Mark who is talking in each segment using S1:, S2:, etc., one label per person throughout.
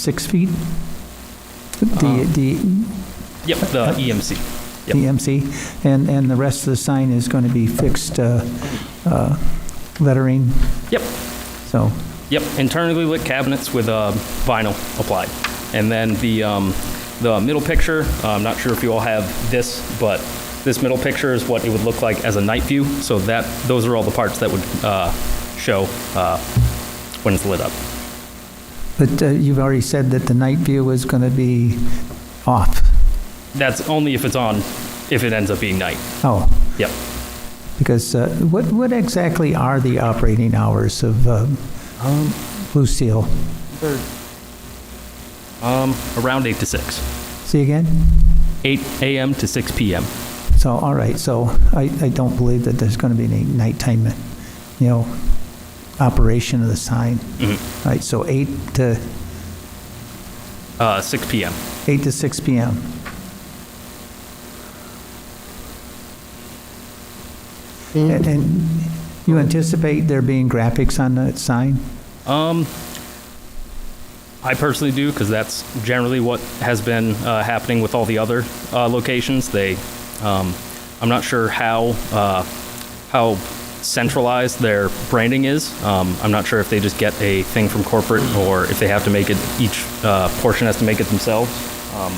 S1: six feet? The, the
S2: Yep, the E EMC. Yep.
S1: the MC, and, and the rest of the sign is going to be fixed uh, uh, lettering,
S2: Yep,
S1: so,
S2: yep, internally lit cabinets with uh, vinyl applied. And then the, um, the middle picture, uh, I'm not sure if you all have this, but this middle picture is what it would look like as a night view. So that, those are all the parts that would uh, show uh, when it's lit up.
S1: but uh, you've already said that the night view is going to be off.
S2: That's only if it's on, if it ends up being night.
S1: Oh,
S2: Yep.
S1: because uh, what, what exactly are the operating hours of um, Blue Seal?
S2: Um, around 8 to 6.
S1: See again?
S2: 8 a.m. to 6 p.m.
S1: So, all right, so I, I don't believe that there's going to be any nighttime, you know, operation of the sign. All right, so 8 to,
S2: Uh, 6 p.m.
S1: 8 to 6 PM. And- And you anticipate there being graphics on that sign?
S2: I personally do because that's generally what has been uh, happening with all the other uh, locations. They, um, I'm not sure how uh, how centralized their branding is. Um, I'm not sure if they just get a thing from corporate or if they have to make it. Each uh, portion has to make it themselves. Um,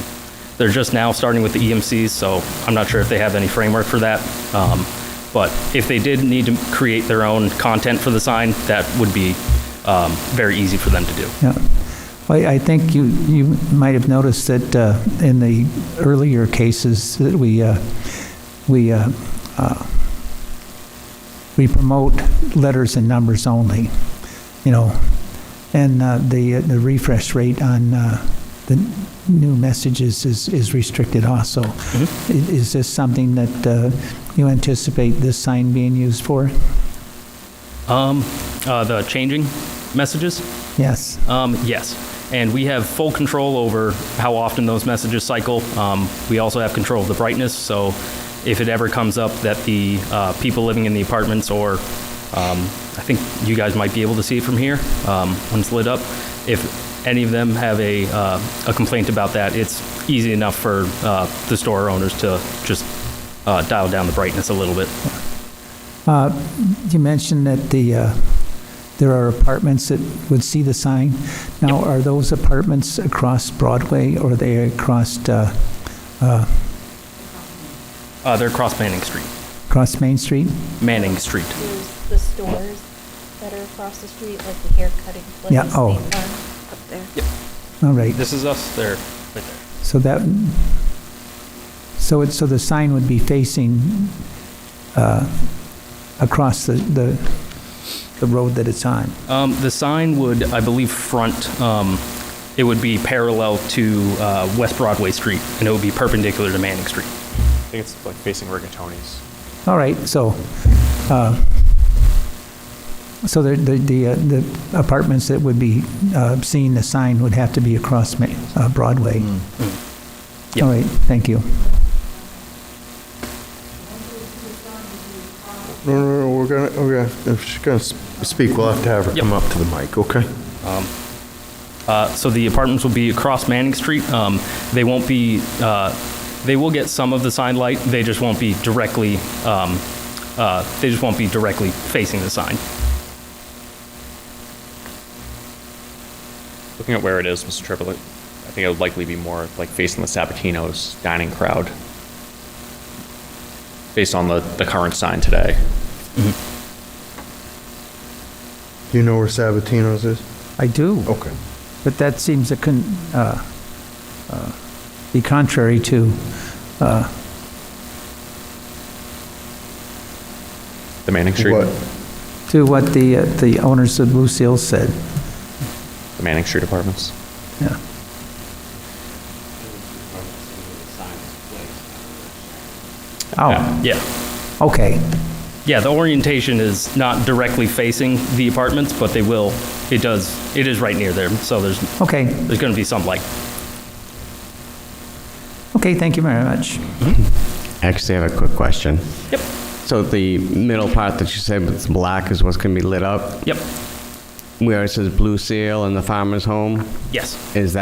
S2: they're just now starting with the EMCs, so I'm not sure if they have any framework for that. Um, but if they did need to create their own content for the sign, that would be um, very easy for them to do.
S1: Yeah. I, I think you, you might have noticed that uh, in the earlier cases that we, uh, we, uh, uh, we promote letters and numbers only, you know, and uh, the, the refresh rate on uh, the new messages is, is restricted also. I- Is this something that uh, you anticipate this sign being used for?
S2: Um, uh, the changing messages?
S1: Yes.
S2: Um, yes. And we have full control over how often those messages cycle. Um, we also have control of the brightness, so if it ever comes up that the uh, people living in the apartments or um, I think you guys might be able to see it from here um, when it's lit up. If any of them have a, uh, a complaint about that, it's easy enough for uh, the store owners to just uh, dial down the brightness a little bit.
S1: You mentioned that the, uh, there are apartments that would see the sign. Now, are those apartments across Broadway or are they across, uh,
S2: Uh, they're across Manning Street.
S1: across Main Street?
S2: Manning Street.
S3: There's the stores that are across the street, like the hair cutting place.
S1: Yeah, oh.
S3: they are Up there.
S1: All right,
S2: This is us there, right there.
S1: so that, so it, so the sign would be facing uh, across the, the the road that it's on?
S2: Um, the sign would, I believe, front, um, it would be parallel to uh, West Broadway Street, and it would be perpendicular to Manning Street.
S4: I think it's like facing rigatoni's.
S1: All right, so, uh, so the, the- the uh, the apartments that would be uh, seeing the sign would have to be across Ma- uh, Broadway?
S2: Mm, Yeah.
S1: All right, thank you.
S5: No, no, no, we're gonna, we're gonna, if she's gonna s- speak, we'll have to have her come up to the mic, okay?
S2: Uh, so the apartments will be across Manning Street. Um, they won't be, uh, they will get some of the sign light. They just won't be directly, um, uh, they just won't be directly facing the sign.
S4: Looking at where it is, Mr. Triplett, I think it would likely be more like facing the Sabatino's dining crowd, based on the, the current sign today.
S5: Do you know where Sabatino's is?
S1: I do,
S5: Okay.
S1: but that seems to con- uh, uh, be contrary to, uh,
S4: The Manning Street?
S5: What?
S1: to what the, uh, the owners of Blue Seal said.
S4: The Manning Street apartments.
S1: Yeah. Oh,
S2: Yeah.
S1: okay,
S2: Yeah, the orientation is not directly facing the apartments, but they will, it does, it is right near there, so there's,
S1: okay.
S2: there's going to be some light.
S1: Okay, thank you very much.
S6: Actually, I have a quick question.
S2: Yep,
S6: So the middle part that you said was black is what's going to be lit up?
S2: yep.
S6: where it says Blue Seal and the Farmer's Home,
S2: Yes.
S6: is that